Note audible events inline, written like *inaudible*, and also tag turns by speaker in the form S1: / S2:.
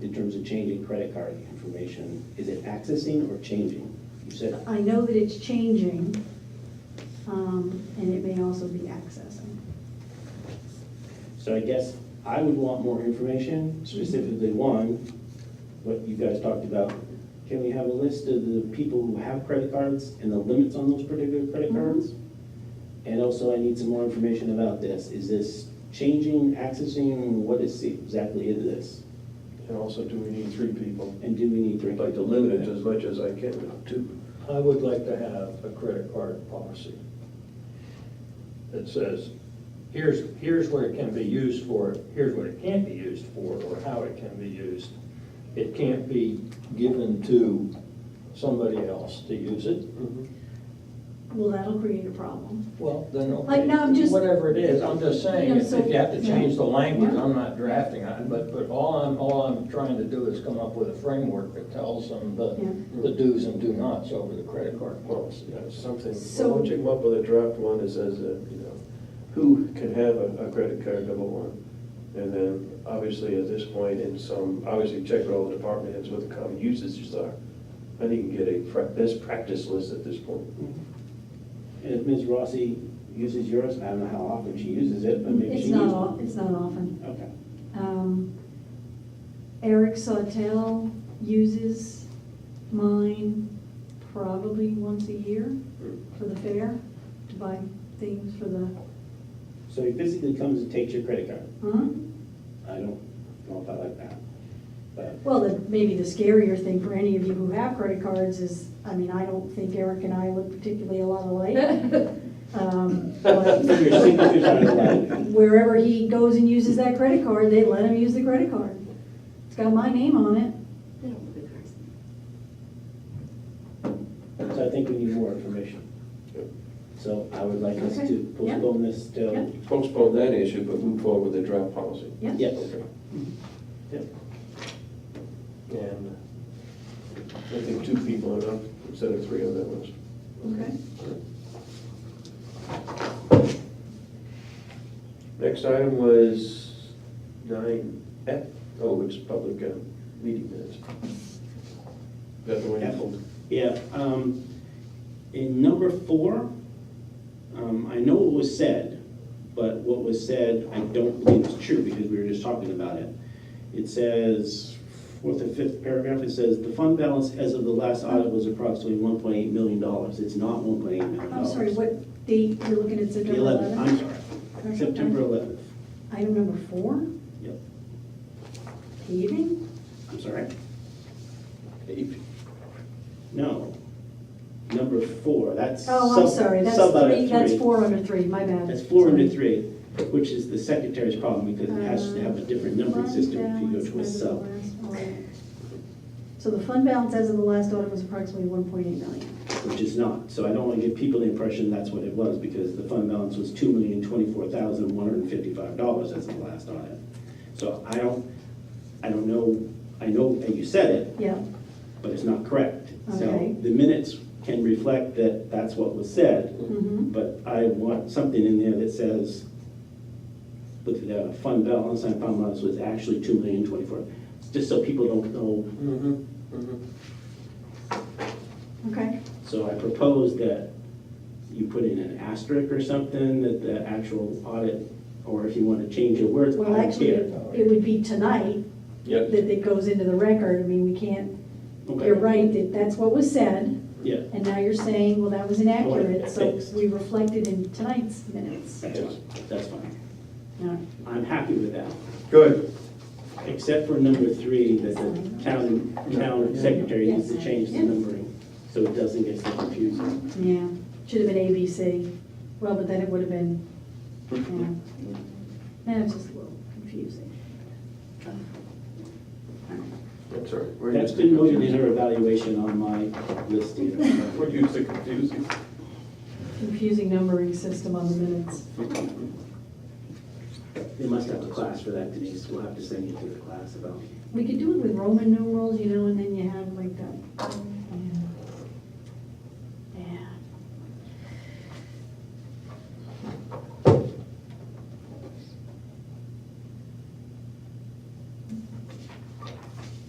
S1: in terms of changing credit card information, is it accessing or changing? You said,
S2: I know that it's changing, um, and it may also be accessing.
S1: so I guess I would want more information, specifically one, what you guys talked about. Can we have a list of the people who have credit cards and the limits on those particular credit
S2: Mhm.
S1: cards? And also I need some more information about this. Is this changing, accessing, what is exactly is this?
S3: And also, do we need three people?
S1: And do we need to?
S3: I'd like to limit it as much as I can to,
S4: I would like to have a credit card policy that says, here's, here's what it can be used for, here's what it can't be used for, or how it can be used. It can't be given to somebody else to use it.
S2: Well, that'll create a problem.
S4: Well, then,
S2: Like,
S4: okay,
S2: no, I'm just-
S4: whatever it is, I'm just saying,
S2: You know,
S4: if
S2: so-
S4: if you have to change the language,
S2: Yeah.
S4: I'm not drafting it, but, but all I'm, all I'm trying to do is come up with a framework that tells them the,
S2: Yeah.
S4: the do's and do nots over the credit card policy.
S3: you know, something,
S2: So-
S3: why don't you come up with a draft one that says, uh, you know, who can have a, a credit card, number one? And then, obviously, at this point, in some, obviously, check with all the department heads what the common usages are. I think you can get a pra- best practice list at this point.
S1: And if Ms. Rossi uses yours, I don't know how often she uses it, but maybe she
S2: It's
S1: uses.
S2: not, al- it's not often.
S1: Okay.
S2: Um, Eric Sawtell uses mine probably once a year for the fair, to buy things for the,
S1: So he physically comes and takes your credit card.
S2: huh?
S1: I don't know if I like that. But
S2: Well, the, maybe the scarier thing for any of you who have credit cards is, I mean, I don't think Eric and I look particularly a lot alike.
S1: *laughs*
S2: Um, but
S1: your signatures are alike.
S2: Wherever he goes and uses that credit card, they let him use the credit card. It's got my name on it.
S5: They don't look at cars.
S1: So I think we need more information.
S3: Yep.
S1: So I would like us
S2: Okay.
S1: to postpone this
S2: Yeah.
S1: till,
S3: Postpone that issue, but move forward with the draft policy.
S2: Yeah.
S1: yes.
S3: Okay.
S1: Yep.
S3: And I think two people enough instead of three on that list.
S2: Okay.
S3: Next item was nine F, oh, it's public uh, meeting minutes. That's the one you pulled.
S1: Yeah, um, in number four, um, I know what was said, but what was said, I don't believe is true because we were just talking about it. It says, fourth or fifth paragraph, it says, "The fund balance as of the last audit was approximately one point eight million dollars." It's not one point eight million
S2: I'm
S1: dollars.
S2: sorry, what date, you're looking at
S1: The
S2: September
S1: 11th, I'm
S2: 11th?
S1: sorry,
S2: Okay.
S1: September 11th.
S2: Item number four,
S1: Yep,
S2: paving?
S1: I'm sorry.
S3: Eight.
S1: No, number four, that's.
S2: Oh, I'm
S1: sub-
S2: sorry, that's
S1: sub item
S2: three, that's
S1: three.
S2: four under three, my bad.
S1: That's four
S2: Sorry.
S1: under three, which is the secretary's problem because it has to have a different numbering
S2: Fund
S1: system if you
S2: Uh, balance
S1: go to a
S2: as of the
S1: sub.
S2: last audit. So the fund balance as of the last audit was approximately one point eight million.
S1: which is not. So I don't want to give people the impression that's what it was, because the fund balance was two million twenty-four thousand one hundred and fifty-five dollars as the last audit. So I don't, I don't know, I know that you said it,
S2: Yeah,
S1: but it's not correct.
S2: Okay.
S1: So the minutes can reflect that that's what was said,
S2: mm-hmm,
S1: but I want something in there that says, with the fund balance, and fund balance was actually two million twenty-four, just so people don't know
S2: okay.
S1: So I propose that you put in an asterisk or something, that the actual audit, or if you want to change your words, I
S2: Well,
S1: don't
S2: actually,
S1: care.
S2: it would be tonight
S3: Yep.
S2: that it goes into the record. I mean, we can't,
S1: Okay.
S2: you're right, that that's what was said,
S1: Yeah,
S2: and now you're saying, well, that was inaccurate, so
S1: fixed.
S2: we reflected in tonight's minutes.
S1: that's fine, that's fine.
S2: All
S1: I'm happy with that,
S3: Good.
S1: except for number three, that the town, town secretary needs to
S2: Yes.
S1: change the
S2: Yeah.
S1: numbering, so it doesn't get so confusing.
S2: right. Yeah, should have been ABC. Well, but then it would have been, yeah. That was just a little confusing.
S3: That's all right. We're
S1: That's
S3: used
S1: been
S3: to
S1: noted in
S3: confusing.
S1: her evaluation on my list here.
S3: We're used to confusing.
S2: Confusing numbering system on the minutes.
S1: They must have a class for that, Denise, we'll have to send you to the class about.
S2: We could do it with Roman numerals, you know, and then you have like the,